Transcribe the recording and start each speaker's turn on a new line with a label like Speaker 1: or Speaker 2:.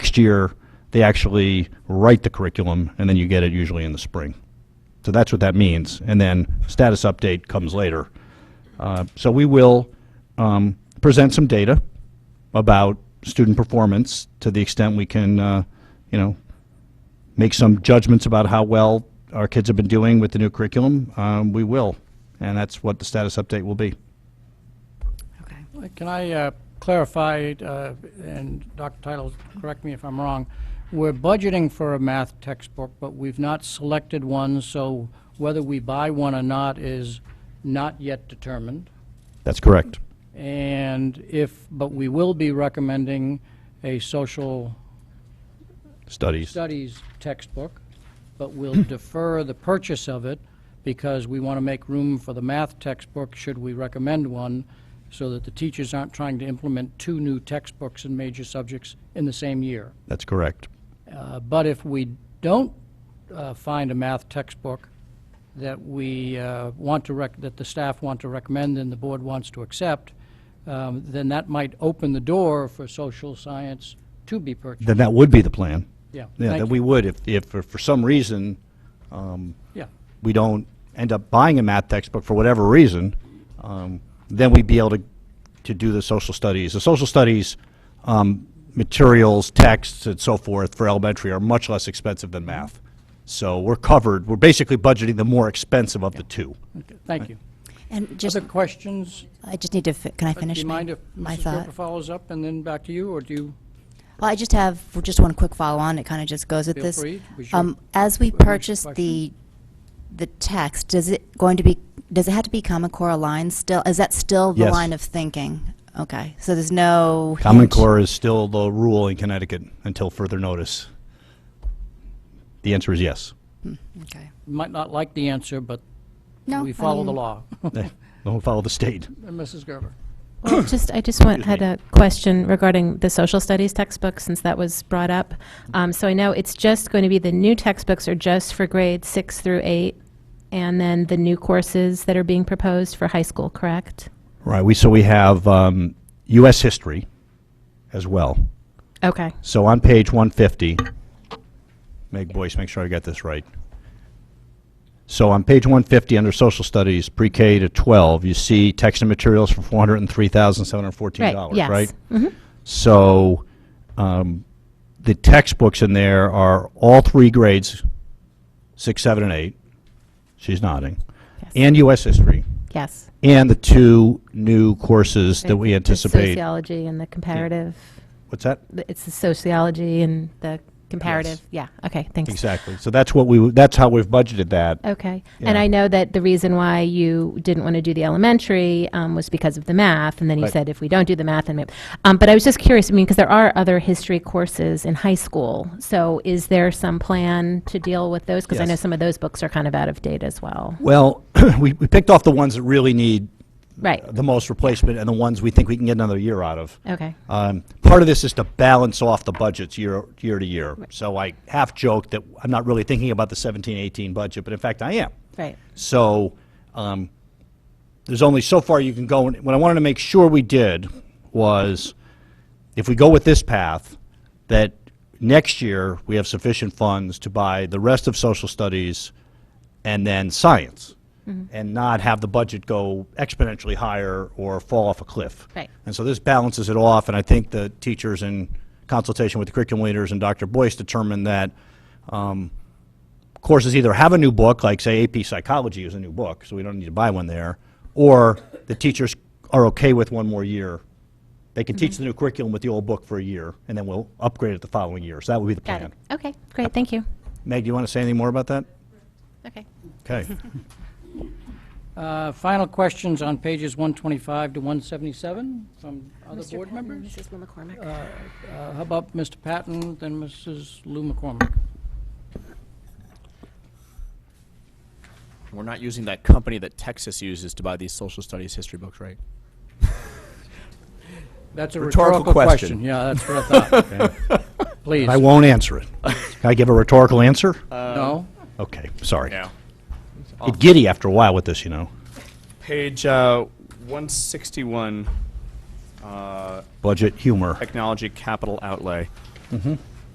Speaker 1: Next year, they actually write the curriculum, and then you get it usually in the spring. So that's what that means. And then status update comes later. Uh, So we will um, present some data about student performance to the extent we can, uh, you know, make some judgments about how well our kids have been doing with the new curriculum. Um, We will, and that's what the status update will be.
Speaker 2: Okay.
Speaker 3: Can I uh, clarify, uh, and Dr. Title, correct me if I'm wrong, we're budgeting for a math textbook, but we've not selected one, so whether we buy one or not is not yet determined.
Speaker 1: That's correct.
Speaker 3: And if, but we will be recommending a social
Speaker 1: Studies.
Speaker 3: studies textbook, but we'll defer the purchase of it because we want to make room for the math textbook, should we recommend one, so that the teachers aren't trying to implement two new textbooks in major subjects in the same year.
Speaker 1: That's correct.
Speaker 3: Uh, But if we don't uh, find a math textbook that we uh, want to rec, that the staff want to recommend and the board wants to accept, um, then that might open the door for social science to be purchased.
Speaker 1: Then that would be the plan.
Speaker 3: Yeah,
Speaker 1: Yeah, that
Speaker 3: thank
Speaker 1: we
Speaker 3: you.
Speaker 1: would, if, if for- for some reason,
Speaker 3: Yeah,
Speaker 1: we don't end up buying a math textbook for whatever reason, um, then we'd be able to, to do the social studies. The social studies um, materials, texts, and so forth for elementary are much less expensive than math. So we're covered, we're basically budgeting the more expensive of the two.
Speaker 3: Okay, thank you.
Speaker 2: And just,
Speaker 3: Other questions?
Speaker 2: I just need to, fi- can I
Speaker 3: uh, Do
Speaker 2: finish?
Speaker 3: you
Speaker 2: my-
Speaker 3: mind if
Speaker 2: my
Speaker 3: Mrs.
Speaker 2: thought?
Speaker 3: Draper follows up and then back to you, or do you?
Speaker 2: Well, I just have just one quick follow-on. It kind of just goes with
Speaker 3: Feel
Speaker 2: this.
Speaker 3: free. Was your-
Speaker 2: Um, As we
Speaker 3: was your
Speaker 2: purchase the, the text, does it going to be, does it have to be Common Core aligned still? Is that still the
Speaker 1: Yes.
Speaker 2: line of thinking? Okay, so there's no.
Speaker 1: Common
Speaker 2: hinge-
Speaker 1: Core is still the rule in Connecticut until further notice. The answer is yes.
Speaker 2: Okay.
Speaker 3: Might not like the answer, but
Speaker 2: No,
Speaker 3: we
Speaker 2: I
Speaker 3: follow the
Speaker 2: mean-
Speaker 3: law.
Speaker 1: Don't follow the state.
Speaker 3: And Mrs. Gerber?
Speaker 4: Well, just, I just want,
Speaker 1: Excuse
Speaker 4: had
Speaker 1: me.
Speaker 4: a question regarding the social studies textbook, since that was brought up. Um, So I know it's just going to be the new textbooks are just for grades six through eight, and then the new courses that are being proposed for high school, correct?
Speaker 1: Right, we, so we have um, US history as well.
Speaker 4: Okay,
Speaker 1: So on page 150, Meg Boyce, make sure I got this right. So on page 150, under Social Studies, pre-K to 12, you see text and materials for
Speaker 4: right,
Speaker 1: $403,714,
Speaker 4: yes.
Speaker 1: right?
Speaker 4: Mhm.
Speaker 1: So um, the textbooks in there are all three grades, six, seven, and eight. She's nodding.
Speaker 4: Yes.
Speaker 1: And U.S. history,
Speaker 4: Yes.
Speaker 1: and the two new courses that we
Speaker 4: The
Speaker 1: anticipate.
Speaker 4: Sociology and the comparative,
Speaker 1: What's that?
Speaker 4: th- it's the sociology and the comparative, yeah, okay, thanks.
Speaker 1: Exactly. So that's what we, w- that's how we've budgeted that.
Speaker 4: Okay.
Speaker 1: Yeah.
Speaker 4: And I know that the reason why you didn't want to do the elementary um, was because of the math, and then you
Speaker 1: Right.
Speaker 4: said if we don't do the math, and ma- um, but I was just curious. I mean, because there are other history courses in high school, so is there some plan to deal with those? Because I know
Speaker 1: Yes.
Speaker 4: some of those books are kind of out of date as well.
Speaker 1: Well, we, we picked off the ones that really need
Speaker 4: Right.
Speaker 1: the most replacement and the ones we think we can get another year out of.
Speaker 4: Okay.
Speaker 1: Um, part of this is to balance off the budgets year, year to year. So I half joked that I'm not really thinking about the 17, 18 budget, but in fact I am.
Speaker 4: Right.
Speaker 1: So um, there's only so far you can go. And what I wanted to make sure we did was if we go with this path, that next year we have sufficient funds to buy the rest of social studies and then science and not have the budget go exponentially higher or fall off a cliff.
Speaker 4: Right.
Speaker 1: And so this balances it off, and I think the teachers in consultation with the curriculum leaders and Dr. Boyce determined that courses either have a new book, like say AP Psychology is a new book, so we don't need to buy one there, or the teachers are okay with one more year. They can
Speaker 4: Mm-hmm.
Speaker 1: teach the new curriculum with the old book for a year, and then we'll upgrade it the following year. So that would be the
Speaker 4: Got
Speaker 1: plan.
Speaker 4: it. Okay. Great. Thank you.
Speaker 1: Meg, do you want to say anything more about that?
Speaker 4: Okay.
Speaker 1: Okay.
Speaker 3: Uh, Final questions on pages 125 to 177 from other board members?
Speaker 5: Mrs. Will McCormick.
Speaker 3: Uh, How about Mr. Patton, then Mrs. Lou McCormick?
Speaker 6: We're not using that company that Texas uses to buy these social studies history books, right?
Speaker 3: That's a
Speaker 6: Rhetorical
Speaker 3: rhetorical
Speaker 6: question.
Speaker 3: question. Yeah, that's what I thought. Please, uh,
Speaker 1: I won't answer it. Can I give a rhetorical answer?
Speaker 4: Uh,
Speaker 3: no?
Speaker 1: Okay, sorry.
Speaker 6: No.
Speaker 1: Get giddy after a while with this, you know.
Speaker 7: Page uh, 161, uh,
Speaker 1: Budget humor.
Speaker 7: technology capital uh, outlay.